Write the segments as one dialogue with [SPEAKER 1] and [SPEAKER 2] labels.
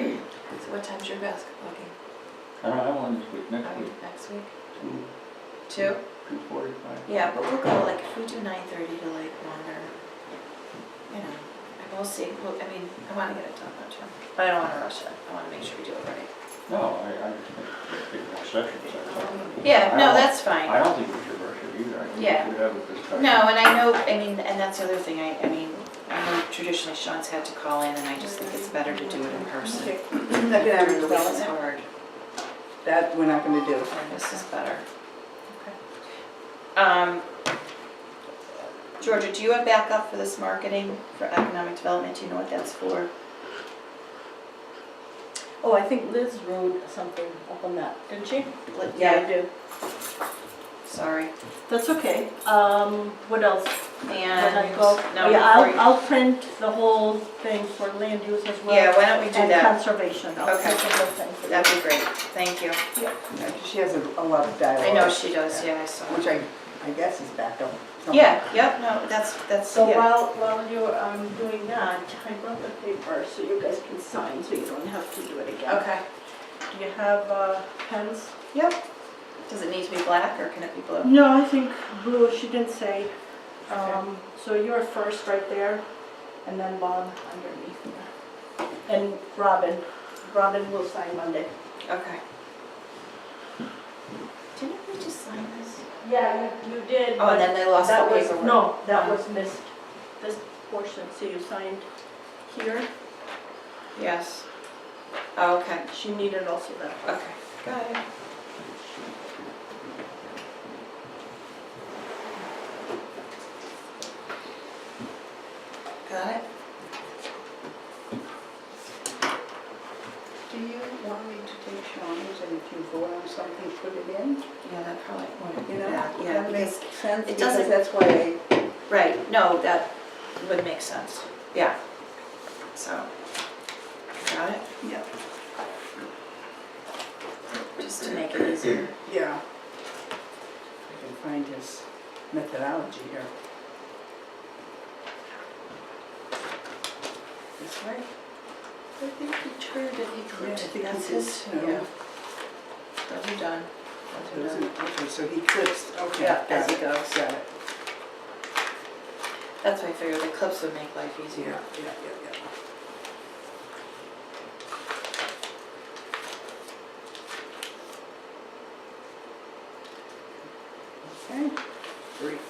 [SPEAKER 1] So what time's your basketball game?
[SPEAKER 2] I don't have one this week, next week,
[SPEAKER 1] Okay, Next week?
[SPEAKER 2] two,
[SPEAKER 1] Two?
[SPEAKER 2] two forty-five.
[SPEAKER 1] Yeah, but we'll go like, if we do nine thirty to like one or, you know, and we'll see. Well, I mean, I wanna get it done, don't you? But I don't wanna rush it. I wanna make sure we do it right.
[SPEAKER 2] No, I, I just think it's a big concession, so.
[SPEAKER 1] Yeah,
[SPEAKER 2] I
[SPEAKER 1] no,
[SPEAKER 2] don't-
[SPEAKER 1] that's fine.
[SPEAKER 2] I don't think we should rush it either, I think we
[SPEAKER 1] Yeah.
[SPEAKER 2] should have a discussion.
[SPEAKER 1] No, and I know, I mean, and that's the other thing, I, I mean, I know traditionally Sean's had to call in, and I just think it's better to do it in person.
[SPEAKER 3] Okay.
[SPEAKER 1] During
[SPEAKER 3] Economic
[SPEAKER 1] the week is
[SPEAKER 3] development,
[SPEAKER 1] hard,
[SPEAKER 3] that we're not gonna do.
[SPEAKER 1] and this is better. Um, Georgia, do you have backup for this marketing for economic development? Do you know what that's for?
[SPEAKER 4] Oh, I think Liz wrote something up on that, didn't she?
[SPEAKER 1] Let-
[SPEAKER 4] I do.
[SPEAKER 1] Sorry.
[SPEAKER 4] That's okay. Um, what else? When I
[SPEAKER 1] And,
[SPEAKER 4] go-
[SPEAKER 1] no,
[SPEAKER 4] Yeah, I'll,
[SPEAKER 1] before
[SPEAKER 4] I'll print the whole thing for land use as
[SPEAKER 1] you,
[SPEAKER 4] well.
[SPEAKER 1] yeah, why don't we do that?
[SPEAKER 4] And conservation, I'll
[SPEAKER 1] Okay.
[SPEAKER 4] print the whole thing. for you.
[SPEAKER 1] That'd be great, thank you.
[SPEAKER 3] She has a a lot of dialogue.
[SPEAKER 1] I know she does, yeah, I saw.
[SPEAKER 3] Which I, I guess is back up. somewhere.
[SPEAKER 1] Yeah, yep, no, that's, that's,
[SPEAKER 4] So
[SPEAKER 1] yeah,
[SPEAKER 4] while, while you're um, doing that, I brought the paper so you guys can sign, so you don't have to do it again.
[SPEAKER 1] okay.
[SPEAKER 4] Do you have uh, pens?
[SPEAKER 1] Yep. Does it need to be black or can it be blue?
[SPEAKER 4] No, I think blue, she didn't say.
[SPEAKER 1] Okay.
[SPEAKER 4] Um, So you're first right there, and then Bob underneath there. And Robin, Robin will sign Monday.
[SPEAKER 1] Okay. Didn't we just sign this?
[SPEAKER 4] Yeah, you you did.
[SPEAKER 1] Oh, and then they lost the
[SPEAKER 4] That was,
[SPEAKER 1] paperwork.
[SPEAKER 4] no, that was missed, this portion, so you signed here.
[SPEAKER 1] Yes. Oh, okay,
[SPEAKER 4] She needed also that.
[SPEAKER 1] okay. Got it. Got it?
[SPEAKER 3] Do you want me to take Shawnee's and if you vote on something, put it in?
[SPEAKER 1] Yeah, that probably wouldn't be
[SPEAKER 3] You know?
[SPEAKER 1] bad, yeah.
[SPEAKER 3] That makes
[SPEAKER 1] because-
[SPEAKER 3] sense,
[SPEAKER 1] it
[SPEAKER 3] because
[SPEAKER 1] doesn't-
[SPEAKER 3] that's why I
[SPEAKER 1] Right, no, that would make sense, yeah. So, got it?
[SPEAKER 3] Yep.
[SPEAKER 1] Just to make it easier.
[SPEAKER 3] Yeah. I can find his methodology here. This way?
[SPEAKER 1] I think he turned and he
[SPEAKER 3] Yeah, I
[SPEAKER 1] clipped.
[SPEAKER 3] think
[SPEAKER 1] That's
[SPEAKER 3] he did
[SPEAKER 1] his,
[SPEAKER 3] too.
[SPEAKER 1] yeah. Those are done. Those are done.
[SPEAKER 3] Okay, so he clips, okay.
[SPEAKER 1] Yeah,
[SPEAKER 3] got
[SPEAKER 1] as he
[SPEAKER 3] it,
[SPEAKER 1] goes.
[SPEAKER 3] Got it.
[SPEAKER 1] That's why I figured the clips would make life
[SPEAKER 3] Yeah,
[SPEAKER 1] easier.
[SPEAKER 3] yeah, yeah, yeah. Okay, great.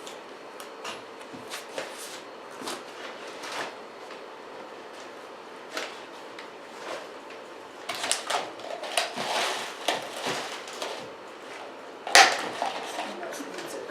[SPEAKER 3] Someone else needs it.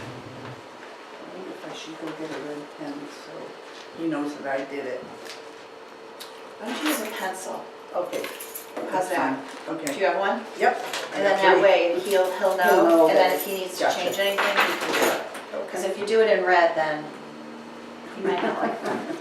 [SPEAKER 3] I wonder if I should go get a red pen, so he knows that I did it.
[SPEAKER 1] Why don't you use a pencil?
[SPEAKER 3] Okay.
[SPEAKER 1] How's
[SPEAKER 3] that's
[SPEAKER 1] that?
[SPEAKER 3] fine.
[SPEAKER 1] Do
[SPEAKER 3] Okay.
[SPEAKER 1] you have one?
[SPEAKER 3] Yep.
[SPEAKER 1] And then that way, he'll, he'll know,
[SPEAKER 3] know
[SPEAKER 1] and then
[SPEAKER 3] that-
[SPEAKER 1] if he needs to
[SPEAKER 3] Gotcha.
[SPEAKER 1] change anything, he can do it. Because if you do it in red, then he might not like that.